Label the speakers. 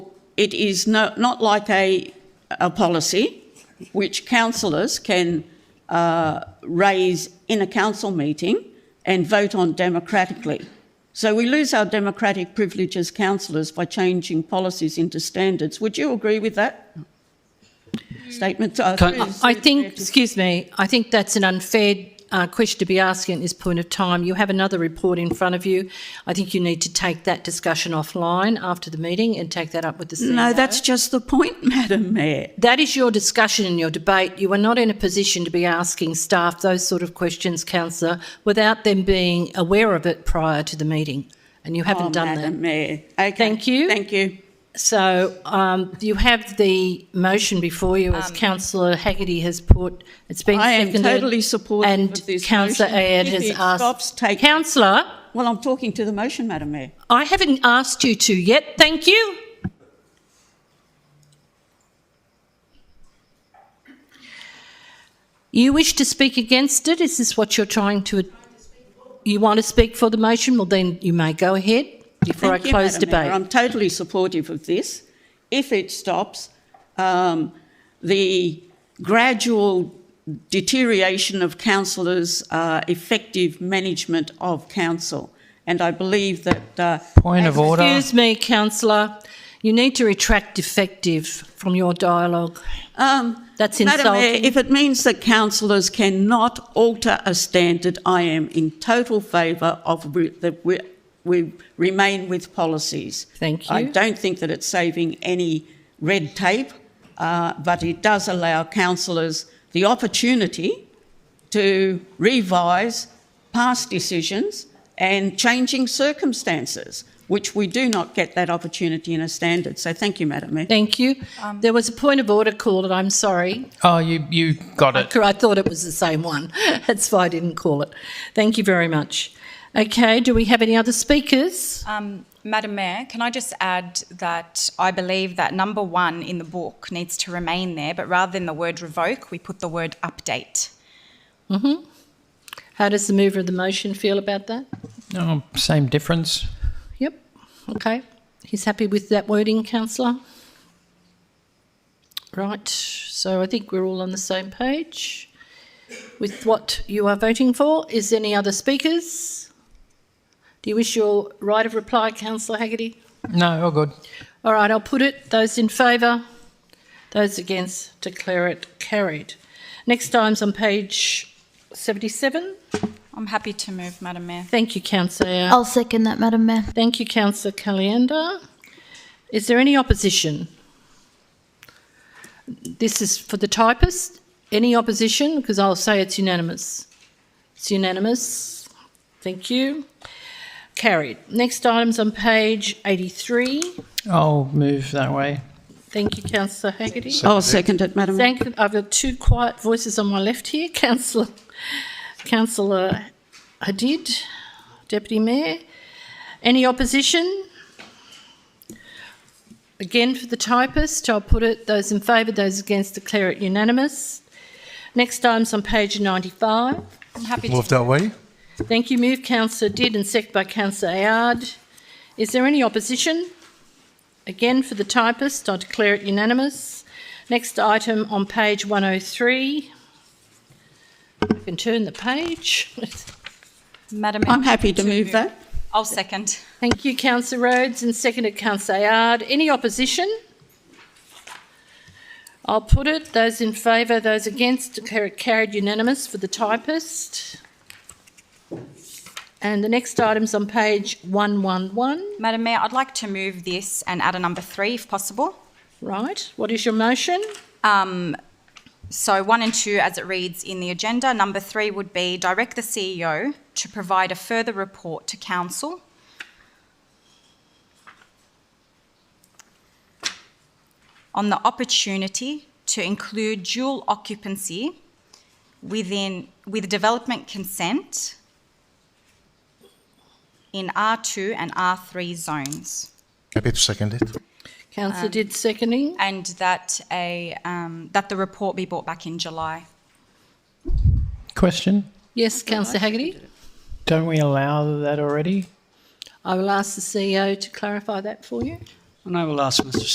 Speaker 1: It is no, not like a, a policy which councillors can uh, raise in a council meeting and vote on democratically. So we lose our democratic privilege as councillors by changing policies into standards. Would you agree with that statement? Uh,
Speaker 2: Can-
Speaker 1: through-
Speaker 3: I think, excuse me, I think that's an unfair uh, question to be asking at this point of time. You have another report in front of you. I think you need to take that discussion offline after the meeting and take that up with the CEO.
Speaker 1: no, that's just the point, Madam Mayor.
Speaker 3: That is your discussion and your debate. You are not in a position to be asking staff those sort of questions, councillor, without them being aware of it prior to the meeting. And you haven't
Speaker 1: Oh,
Speaker 3: done
Speaker 1: Madam
Speaker 3: that.
Speaker 1: Mayor. Okay.
Speaker 3: Thank you.
Speaker 1: Thank you.
Speaker 3: So um, you have the motion before you, as councillor Haggerty has put. It's been
Speaker 1: Um, I am
Speaker 3: seconded.
Speaker 1: totally supportive
Speaker 3: and
Speaker 1: of this
Speaker 3: councillor
Speaker 1: motion.
Speaker 3: Ayad
Speaker 1: If
Speaker 3: has
Speaker 1: it
Speaker 3: asked.
Speaker 1: stops, take-
Speaker 3: councillor,
Speaker 1: Well, I'm talking to the motion, Madam Mayor.
Speaker 3: I haven't asked you to yet. Thank you. You wish to speak against it? Is this what you're trying to? You want to speak for the motion? Well, then you may go ahead before
Speaker 1: Thank
Speaker 3: I
Speaker 1: you,
Speaker 3: close
Speaker 1: Madam
Speaker 3: debate.
Speaker 1: Mayor. I'm totally supportive of this. If it stops, um, the gradual deterioration of councillors' uh, effective management of council. And I believe that. Uh,
Speaker 2: Point of
Speaker 1: as-
Speaker 2: order.
Speaker 3: Excuse me, councillor. You need to retract defective from your dialogue.
Speaker 1: Um,
Speaker 3: That's
Speaker 1: Madam Mayor,
Speaker 3: insulting.
Speaker 1: if it means that councillors cannot alter a standard, I am in total favour of re- that we, we remain with policies.
Speaker 3: Thank
Speaker 1: I
Speaker 3: you.
Speaker 1: don't think that it's saving any red tape, uh, but it does allow councillors the opportunity to revise past decisions and changing circumstances, which we do not get that opportunity in a standard. So thank you, Madam Mayor.
Speaker 3: Thank you.
Speaker 1: Um,
Speaker 3: There was a point of order called, and I'm sorry.
Speaker 2: Oh, you, you got it.
Speaker 3: I thought it was the same one. That's why I didn't call it. Thank you very much. Okay, do we have any other speakers?
Speaker 4: Um, Madam Mayor, can I just add that I believe that number one in the book needs to remain there, but rather than the word revoke, we put the word update.
Speaker 3: How does the mover of the motion feel about that?
Speaker 2: Oh, same difference.
Speaker 3: Yep. Okay. He's happy with that wording, councillor? Right. So I think we're all on the same page with what you are voting for. Is there any other speakers? Do you wish your right of reply, councillor Haggerty?
Speaker 2: No, all good.
Speaker 3: All right, I'll put it. Those in favour, those against, declare it carried. Next item's on page 77.
Speaker 4: I'm happy to move, Madam Mayor.
Speaker 3: Thank you, councillor.
Speaker 5: I'll second that, Madam Mayor.
Speaker 3: Thank you, councillor Calienda. Is there any opposition? This is for the typist. Any opposition? Because I'll say it's unanimous. It's unanimous. Thank you. Carried. Next item's on page 83.
Speaker 2: I'll move that way.
Speaker 3: Thank you, councillor Haggerty.
Speaker 1: I'll second it, Madam Mayor.
Speaker 3: Thank, I've got two quiet voices on my left here, councillor, councillor Hadid, deputy mayor. Any opposition? Again, for the typist, I'll put it, those in favour, those against, declare it unanimous. Next item's on page ninety-five.
Speaker 4: I'm happy
Speaker 6: Move
Speaker 4: to.
Speaker 6: that way.
Speaker 3: Thank you, move councillor Did and second by councillor Ayard. Is there any opposition? Again, for the typist, I declare it unanimous. Next item on page 103. I can turn the page.
Speaker 4: Madam Mayor.
Speaker 1: I'm happy to move that.
Speaker 4: I'll second.
Speaker 3: Thank you, councillor Rhodes, and seconded councillor Ayard. Any opposition? I'll put it, those in favour, those against, declare it carried unanimous for the typist. And the next item's on page 111,
Speaker 4: Madam Mayor, I'd like to move this and add a number three if possible.
Speaker 3: right? What is your motion?
Speaker 4: Um, so one and two, as it reads in the agenda, number three would be direct the CEO to provide a further report to council. On the opportunity to include dual occupancy within, with development consent in R2 and R3 zones.
Speaker 6: Happy to second it.
Speaker 3: Councillor Did seconding.
Speaker 4: and that a um, that the report be brought back in July.
Speaker 2: Question?
Speaker 3: Yes, councillor Haggerty.
Speaker 2: Don't we allow that already?
Speaker 3: I will ask the CEO to E clarify that for you.
Speaker 7: And I will ask Mr.